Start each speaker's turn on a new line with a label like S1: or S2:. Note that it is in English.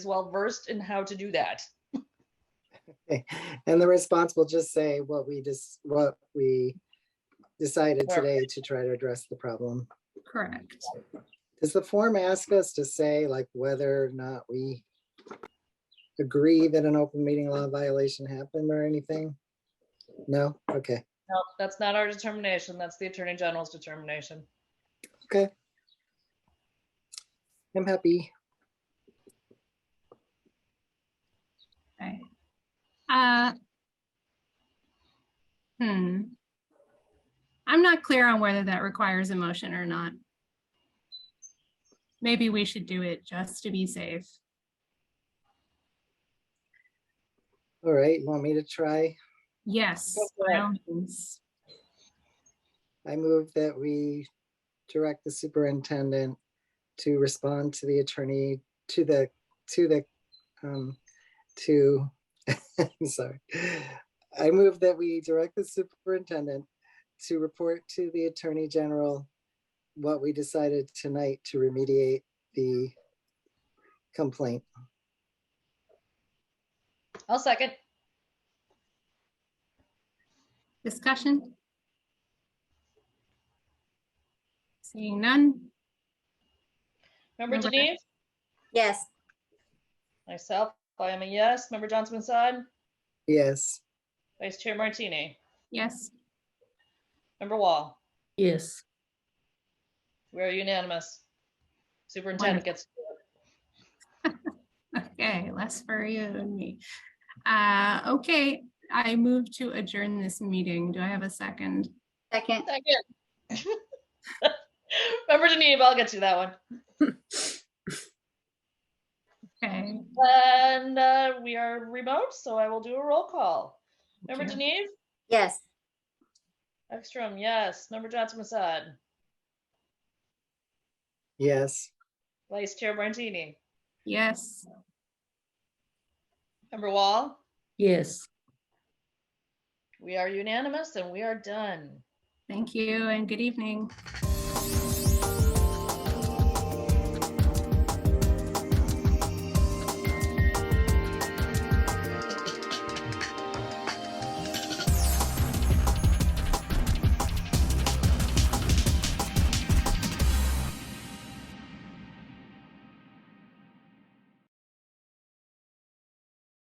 S1: well versed in how to do that.
S2: And the response will just say what we just, what we decided
S1: Sure.
S2: today to try to address the problem.
S3: Correct.
S2: Does the form ask us to say like whether or not we agree that an open meeting law violation happened or anything? No? Okay,
S1: No, that's not our determination. That's the Attorney General's determination.
S2: okay. I'm happy.
S3: Right. Uh, Hmm. I'm not clear on whether that requires a motion or not. Maybe we should do it just to be safe.
S2: All right, you want me to try?
S3: Yes.
S1: Go for
S3: by
S1: it.
S3: all means.
S2: I move that we direct the superintendent to respond to the attorney, to the, to the, um, to, I'm sorry. I move that we direct the superintendent to report to the Attorney General what we decided tonight to remediate the complaint.
S1: I'll second.
S3: Discussion? Seeing none?
S1: Member
S3: Member-
S1: Denise?
S4: Yes,
S1: Myself, I am a yes. Member Johnson Musad?
S2: Yes,
S1: Vice Chair Martini?
S3: Yes.
S1: Member Wall?
S5: Yes,
S1: We are unanimous. Superintendent gets,
S3: Okay, less for you and me. Uh, Okay, I move to adjourn this meeting. Do I have a second?
S4: second,
S1: Second. Member Denise, I'll get you that one.
S3: Okay.
S1: And uh, we are remote, so I will do a roll call. Member
S3: Okay.
S1: Denise?
S4: yes,
S1: Ekstrom, yes. Member Johnson Musad?
S2: yes.
S1: Vice Chair Martini?
S3: Yes.
S1: Member Wall?
S5: yes.
S1: We are unanimous and we are done.
S3: Thank you and good evening.